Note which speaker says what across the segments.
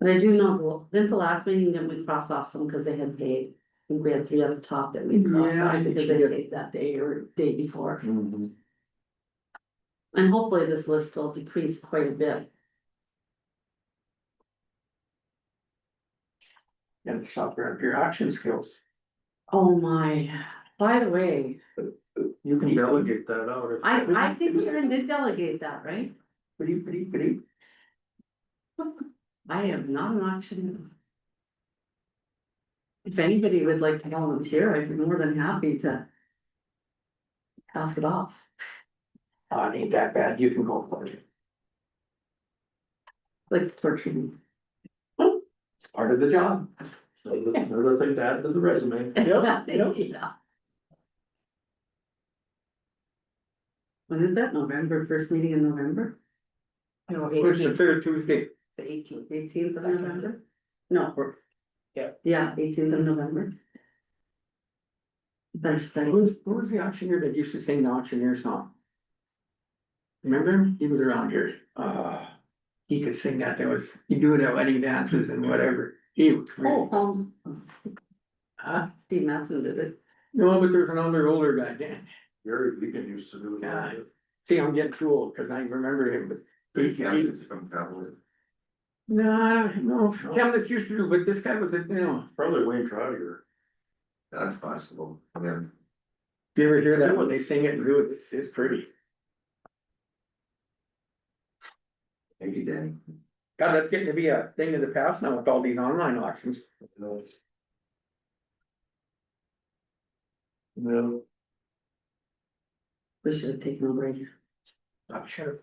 Speaker 1: And I do know, well, didn't the last meeting, didn't we cross off some because they had paid? I think we had three on the top that we crossed
Speaker 2: Yeah, I
Speaker 1: off
Speaker 2: think
Speaker 1: because
Speaker 2: she
Speaker 1: they
Speaker 2: did.
Speaker 1: paid that day or day before.
Speaker 2: Mhm.
Speaker 1: And hopefully this list will decrease quite a bit.
Speaker 2: And shop around your auction skills.
Speaker 1: Oh my, by the way,
Speaker 2: You can
Speaker 3: delegate that out. if-
Speaker 1: I, I think we already did delegate that, right?
Speaker 2: Pretty, pretty, pretty.
Speaker 1: I am not an auctioneer. If anybody would like to volunteer, I'd be more than happy to. Pass it off.
Speaker 2: Uh, it ain't that bad, you can go for it,
Speaker 1: Like to torture me.
Speaker 2: it's part of the job.
Speaker 3: So that's Another thing to add to the resume.
Speaker 1: Yeah. When is that, November, first meeting in November? No,
Speaker 3: Which is the third Tuesday.
Speaker 1: The eighteenth, eighteenth of
Speaker 2: Second.
Speaker 1: November? No, we're-
Speaker 3: Yeah.
Speaker 1: Yeah, eighteenth of November. Better study.
Speaker 2: Who's, who was the auctioneer that used to sing the auctioneer song? Remember, him? he was around here, uh, he could sing that, there was, he do it at wedding dances and whatever, he was
Speaker 1: Oh,
Speaker 2: great.
Speaker 1: um,
Speaker 2: Huh?
Speaker 1: Steve Matheson did it.
Speaker 2: No, but there's another older guy, Dan,
Speaker 3: Gary Regan used to do that.
Speaker 2: see, I'm getting too old, cause I remember him, but.
Speaker 3: Three candidates from Cavalier.
Speaker 2: Nah, no, Chemnitz used to do, but this guy was, a you know,
Speaker 3: Probably Wayne Trotter. That's possible. I mean,
Speaker 2: if you ever hear that when they sing it and do it, it's, it's pretty.
Speaker 3: maybe Danny.
Speaker 2: God, that's getting to be a thing of the past now with all these online auctions.
Speaker 3: No.
Speaker 1: We should have taken a break.
Speaker 2: I'm sure.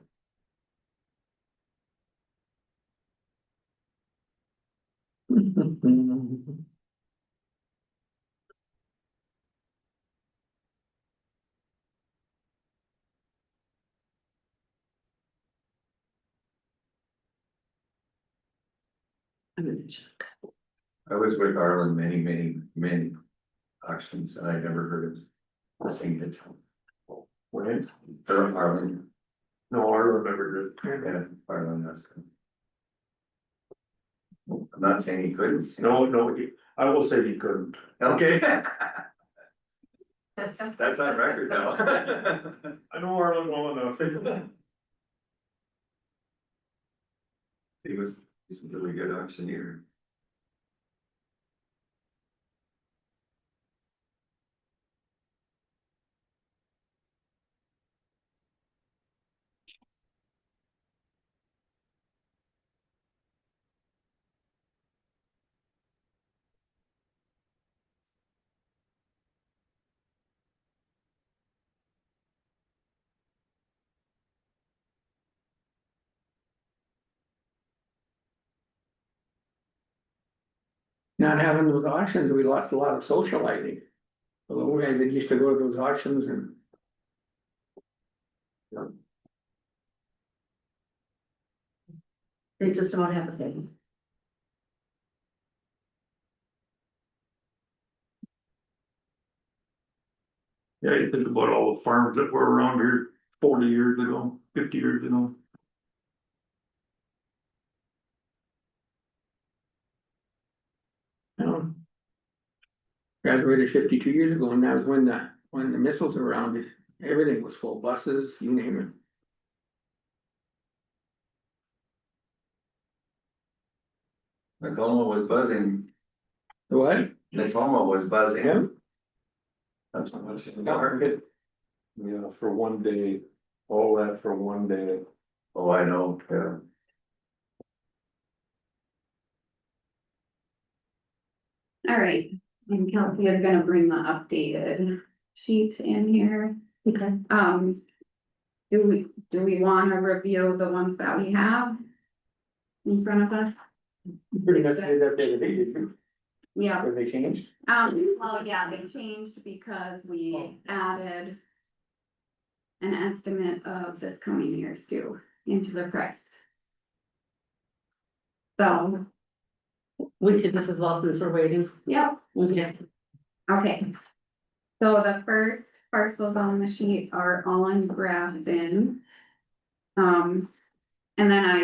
Speaker 1: I'm gonna check.
Speaker 3: I was with Arlen many, many, many auctions and I never heard of singing it. When? Or Arlen. No, I remember it. Yeah, Arlen, that's. I'm not saying he couldn't. sing.
Speaker 4: No, no, he- I will say he couldn't.
Speaker 3: Okay. That's on record now.
Speaker 4: I know Arlen well enough.
Speaker 3: He was, he's a really good auctioneer.
Speaker 2: Not having those auctions, we lost a lot of socializing. The little guys that used to go to those auctions and.
Speaker 1: They just don't have a thing.
Speaker 4: Yeah, you think about all the farms that were around here forty years ago, fifty years ago.
Speaker 2: you know. Graduated fifty-two years ago and that was when the, when the missiles were around, everything was full, buses, you name it.
Speaker 3: Nakoma was buzzing,
Speaker 2: The What?
Speaker 3: Nakoma was buzzing.
Speaker 2: Yeah.
Speaker 3: That's how much-
Speaker 4: Yeah, for one day, all that for one day.
Speaker 3: Oh, I know, yeah.
Speaker 5: All right, and Kelsey is gonna bring the updated sheet in here.
Speaker 1: Okay.
Speaker 5: Um. Do we, do we wanna review the ones that we have? In front of us?
Speaker 2: Pretty much did that day to day, didn't you?
Speaker 5: Yeah,
Speaker 2: Have they changed?
Speaker 5: um, well, yeah, they changed because we added. An estimate of this coming year's due into the price. So,
Speaker 1: We could, this is well since we're waiting.
Speaker 5: yep,
Speaker 1: Okay.
Speaker 5: Okay. So the first parcels on the sheet are all in Grafton. Um, and then I